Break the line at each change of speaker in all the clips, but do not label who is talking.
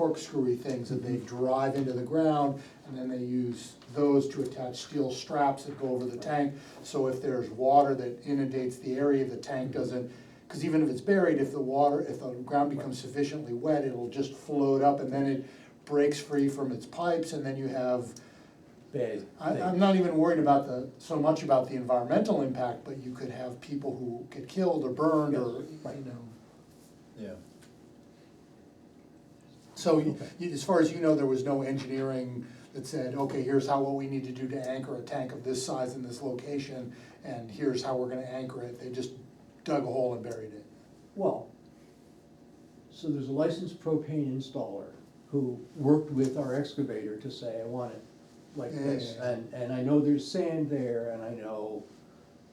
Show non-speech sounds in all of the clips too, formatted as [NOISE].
corkscrewy things that they drive into the ground, and then they use those to attach steel straps that go over the tank. So if there's water that inundates the area, the tank doesn't, because even if it's buried, if the water, if the ground becomes sufficiently wet, it'll just float up, and then it breaks free from its pipes, and then you have
bad
I,
thing.
I'm not even worried about the, so much about the environmental impact, but you could have people who get killed or burned or, you know.
Yeah.
So you- you- as far as you know, there was no engineering that said, okay, here's how, what we need to do to anchor a tank of this size in this location, and here's how we're gonna anchor it, they just dug a hole and buried it.
Well, so there's a licensed propane installer who worked with our excavator to say, I want it like
Yeah,
this.
yeah, yeah.
And, and I know there's sand there and I know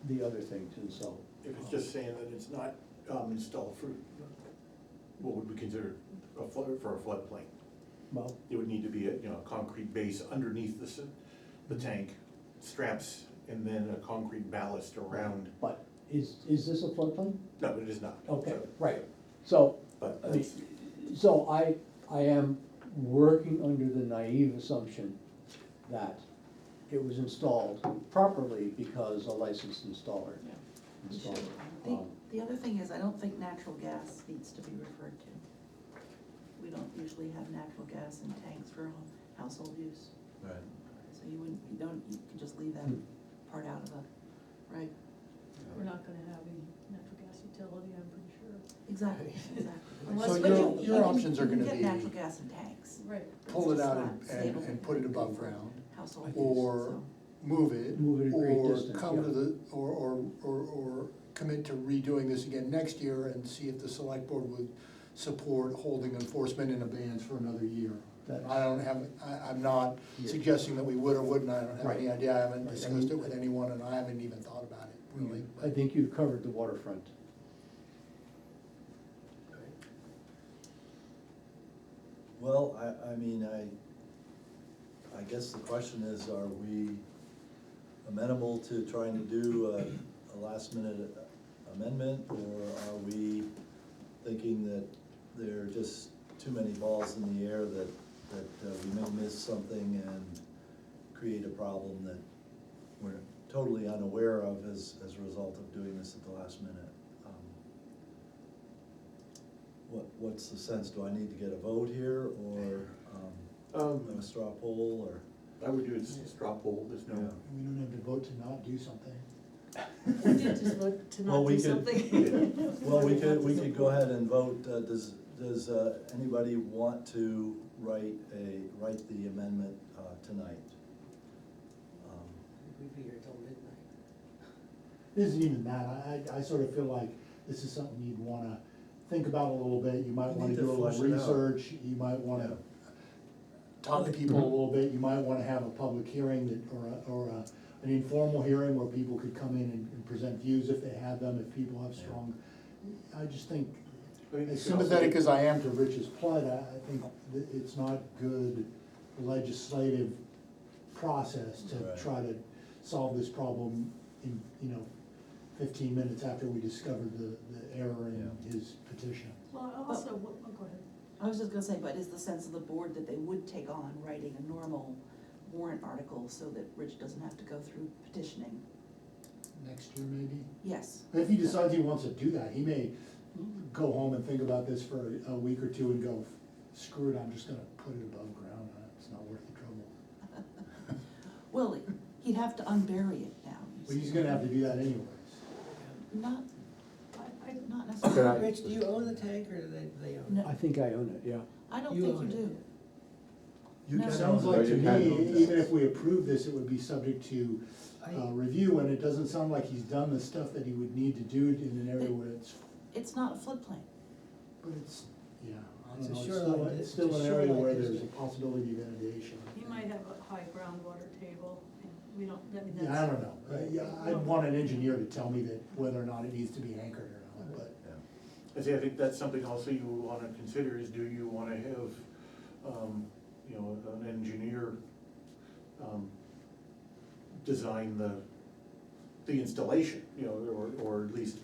the other things and so.
If it's just saying that it's not um, installed for, what would we consider a flood, for a floodplain?
Well,
It would need to be a, you know, a concrete base underneath the, s- the tank, straps, and then a concrete ballast around.
but is, is this a floodplain?
No, it is not.
Okay, right. So,
But
I mean,
that's,
so I, I am working under the naive assumption that it was installed properly because a licensed installer
Yeah.
installed it.
The,
Um,
the other thing is, I don't think natural gas needs to be referred to. We don't usually have natural gas in tanks for hou- household use,
Right.
so you wouldn't, you don't, you can just leave that
Hmm.
part out of the, right?
We're not gonna have a natural gas utility, I'm pretty sure.
Exactly,
[LAUGHS]
exactly.
Unless-
So
but
your,
you-
your
you
options are gonna
You can
be,
get natural gas in tanks.
[LAUGHS] Right.
pull it
It's
out
not
and, and,
stable.
and put it above ground.
Household use,
or-
so.
move it,
Move it a great
or
distance,
come to
yeah.
the, or, or, or, or commit to redoing this again next year and see if the select board would support holding enforcement in abeyance for another year.
That's-
I don't have, I, I'm not
Yeah.
suggesting that we would or wouldn't, I don't have any
Right.
idea, I haven't
Right, I
discussed
mean-
it with anyone, and I haven't even thought about it, really.
I think you've covered the waterfront.
Well, I, I mean, I, I guess the question is, are we amenable to trying to do a, a last minute amendment? Or are we thinking that there are just too many balls in the air that, that uh, we may miss something and create a problem that we're totally unaware of as, as a result of doing this at the last minute? Um, What, what's the sense, do I need to get a vote here, or, um,
um,
a straw poll, or?
I would do a straw poll, there's no,
We don't have to vote to not do something.
We did just vote to
Well,
not
we
do
could-
something.
Well, we could, we could go ahead and vote, uh, does, does, uh, anybody want to write a, write the amendment, uh, tonight? Um,
We'd be here till midnight.
This isn't even that, I, I, I sort of feel like this is something you'd wanna think about a little bit, you might
You
wanna
need to
do a little
flush it out.
research, you might wanna
Talk to
people a
Mm-hmm.
people,
little bit, you might wanna have a public hearing that, or a, or a, an informal hearing where people could come in and, and present views if they have them, if people have
Yeah.
strong. I just think,
I mean, you
as
could also-
sympathetic as I am to Rich's plight, I, I think that it's not good legislative process
Right.
to try to solve this problem in, you know, fifteen minutes after we discovered the, the error in
Yeah.
his petition.
[LAUGHS] Well, [LAUGHS] also, what- oh, go ahead.
I was just gonna say, but is the sense of the board that they would take on writing a normal warrant article so that Rich doesn't have to go through petitioning?
Next year, maybe?
Yes,
If he decides he wants to do that, he may go home and think about this for a week or two and go, screw it, I'm just gonna put it above ground, uh, it's not worth the trouble.
well, he'd have to unbury it now. you
But he's
see.
gonna have to do that anyways.
Not,
I, I,
not necessarily,
Rich, do you own the tank or do they, they own it?
no,
I think I own it, yeah.
I don't
You
think you
own it.
do.
You
No.
can
Sounds
own
like
it.
to me, even if we approve this, it would be subject to uh,
I-
review, and it doesn't sound like he's done the stuff that he would need to do in an area where it's,
It's not a floodplain.
but it's, yeah, I
It's a
don't know, it's still,
shoreline
it's
dis-
still
it's a
an area
shoreline
where there's a
district.
possibility of inundation.
you might have a high groundwater table, and we don't, I mean, that's.
Yeah, I don't know, I, yeah, I'd want an engineer to tell me that whether or not it needs to be anchored or not, but.
Yeah.
I say, I think that's something also you would wanna consider is do you wanna have, um, you know, an engineer, um, design the, the installation, you know, or, or at least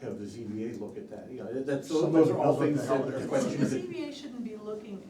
have the ZBA look at that, you know, that's, those
Somebody
are all
knows what the
things
hell
that
they're
are
doing.
The
questions that
ZBA shouldn't be looking